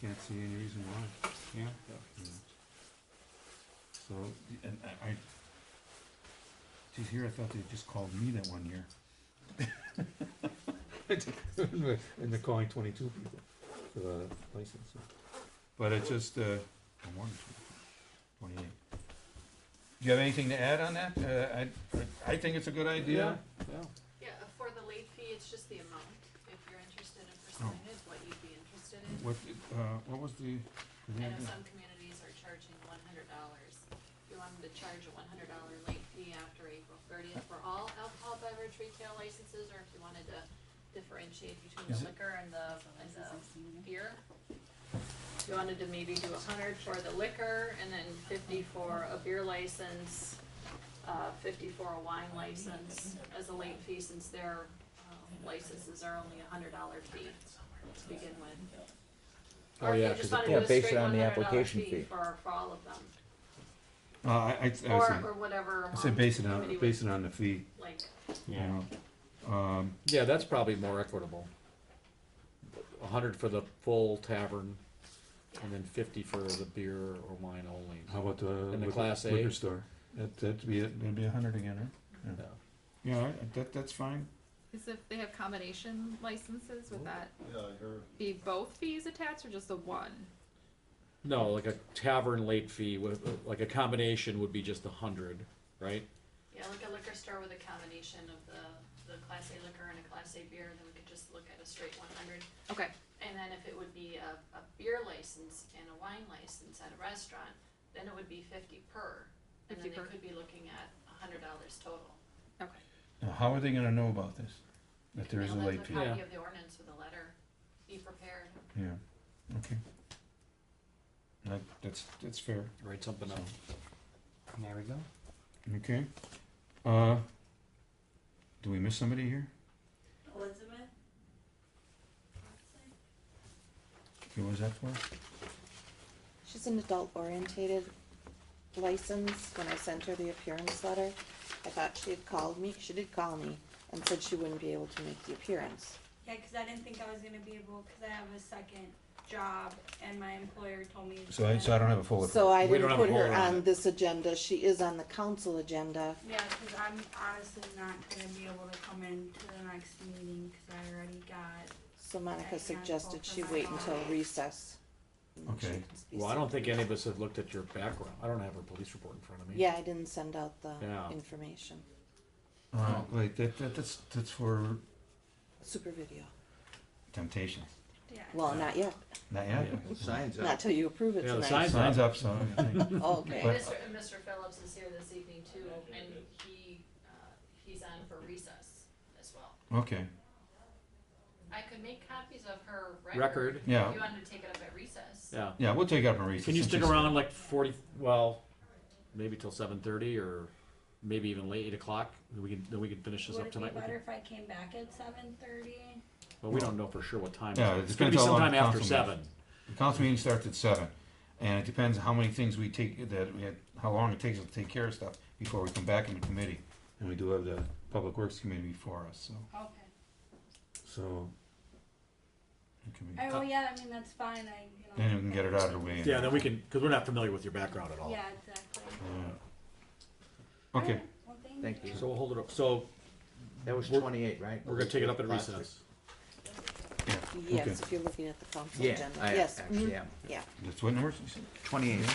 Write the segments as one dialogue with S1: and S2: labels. S1: can't see any reason why,
S2: yeah.
S1: you know. So, and I, I, geez, here I thought they just called me that one year. And they're calling twenty-two people for the license, so. but it just, uh, I wanted twenty-eight. Do you have anything to add on that? Uh, I, I think it's a good idea.
S2: Yeah.
S3: Yeah, uh, for the late fee, it's just the amount, if you're interested in pursuing it, what you'd be interested in.
S1: Oh. What, uh, what was the?
S3: I know some communities are charging one hundred dollars. If you want them to charge a one hundred dollar late fee after April thirtieth for all alcohol beverage retail licenses, or if you wanted to differentiate between
S1: Is
S3: the
S1: it-
S3: liquor and the, and the beer. If you wanted to maybe do a hundred for the liquor, and then fifty for a beer license, uh, fifty for a wine license as a late fee, since their um, licenses are only a hundred dollar fee to begin with.
S2: Oh,
S3: Or if you
S2: yeah,
S3: just
S2: 'cause it-
S3: wanna do
S4: yeah,
S3: a
S4: based
S3: straight
S4: on the
S3: $100
S4: application fee.
S3: For, for all of them,
S1: Uh, I, I, I say,
S3: or, or whatever
S1: I say
S3: amount
S1: base it
S3: the
S1: on,
S3: committee
S1: base
S3: would
S1: it on the fee,
S3: like,
S1: you know. Um,
S2: Yeah, that's probably more equitable. A hundred for the full tavern, and then fifty for the beer or wine only.
S1: how about the
S2: the
S1: liquor-
S2: Class A?
S1: liquor store? That, that'd be, it. that'd be a hundred again, huh?
S2: Yeah.
S1: Yeah, I- that, that's fine.
S5: Is if they have combination licenses, would that
S6: Yeah, I heard.
S5: be both fees attached or just the one?
S2: No, like a tavern late fee, with, like a combination would be just a hundred, right?
S3: yeah, like a liquor store with a combination of the, the class A liquor and a class A beer, then we could just look at a straight one hundred.
S5: Okay,
S3: And then if it would be a, a beer license and a wine license at a restaurant, then it would be fifty per, and then
S5: 50
S3: they
S5: per.
S3: could be looking at a hundred dollars total.
S5: okay.
S1: Now, how are they gonna know about this? That there is a
S3: Mail them
S1: late fee?
S3: a copy
S2: Yeah.
S3: of the ordinance with a letter, be prepared.
S1: Yeah, okay. That, that's, that's fair.
S2: Write something up.
S4: There we go.
S1: Okay. Uh, do we miss somebody here?
S7: Elizabeth?
S1: Who was that for?
S8: She's an adult orientated license. When I sent her the appearance letter, I thought she had called me, she did call me and said she wouldn't be able to make the appearance.
S7: Yeah, 'cause I didn't think I was gonna be able, cause I have a second job and my employer told me.
S1: So I, so I don't have a full.
S8: So I
S2: We don't
S8: didn't
S2: have
S8: put
S2: a
S8: her
S2: vote on
S8: on
S2: it.
S8: this agenda. She is on the council agenda.
S7: Yeah, cause I'm honestly not gonna be able to come in to the next meeting, cause I already got,
S8: So Monica
S7: I can't
S8: suggested
S7: vote for
S8: she
S7: my
S8: wait until
S7: daughter.
S8: recess. and then she
S1: Okay.
S8: can speak.
S2: Well, I don't think any of us have looked at your background. I don't have a police report in front of me.
S8: Yeah, I didn't send out the
S2: Yeah.
S8: information.
S1: Uh, like, that, that, that's, that's for
S8: Super video.
S1: temptation.
S7: yeah.
S8: Well, not yet.
S1: Not yet.
S2: Yeah.
S4: Signs up.
S8: Not till you approve it
S2: Yeah, the
S8: tonight.
S2: sign-
S1: Signs up, so. I think.
S8: Oh,
S3: And
S8: Okay.
S1: But-
S3: Mr. and Mr. Phillips is here this evening too, and he, uh, he's on for recess as well.
S1: Okay,
S3: I could make copies of her record.
S2: Record,
S1: yeah,
S3: If you wanted to take it up at recess.
S2: yeah.
S1: yeah, we'll take up a recess.
S2: Can you
S1: It's
S2: stick
S1: just-
S2: around like forty, well, maybe till seven thirty or maybe even late eight o'clock? We can, then we can finish this
S7: Would
S2: up
S7: it be
S2: tonight. We
S7: better
S2: can-
S7: if I came back at seven thirty?
S2: Well, we don't know for sure what time.
S1: Yeah, it
S2: It's gonna be
S1: depends how long
S2: sometime after
S1: council meets.
S2: seven.
S1: The council meeting starts at seven, and it depends how many things we take, that we had, how long it takes us to take care of stuff before we come back into committee. And we do have the Public Works Committee before us, so,
S7: Okay.
S1: so. it could be-
S7: Oh, well, yeah, I mean, that's fine, I, you know.
S1: Then we can get it out of the way. and-
S2: Yeah, then we can, because we're not familiar with your background at all.
S7: Yeah, exactly.
S1: Yeah. Uh, Okay,
S7: Alright, Well,
S4: Thank you.
S2: So we'll hold it up. So
S4: That was
S2: We're-
S4: twenty-eight, right?
S2: we're gonna take it up at
S4: Plastic.
S2: recess.
S1: Okay.
S8: Yes, if you're looking at the council
S4: Yeah,
S8: agenda.
S4: I
S8: Yes. mhm,
S4: actually am.
S8: Yeah.
S1: that's what numbers you said?
S4: Twenty-eight.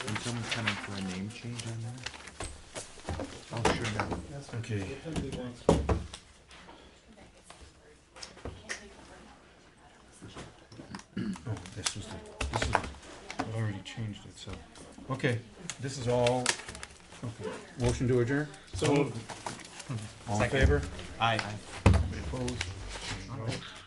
S4: Can someone come in for a name change on that? Oh, sure. no.
S1: Okay. Oh, this was the, this is, I already changed it, so, okay, this is all, okay. Motion to adjourn?
S2: So
S1: All in favor?
S4: Aye.
S1: Opposed?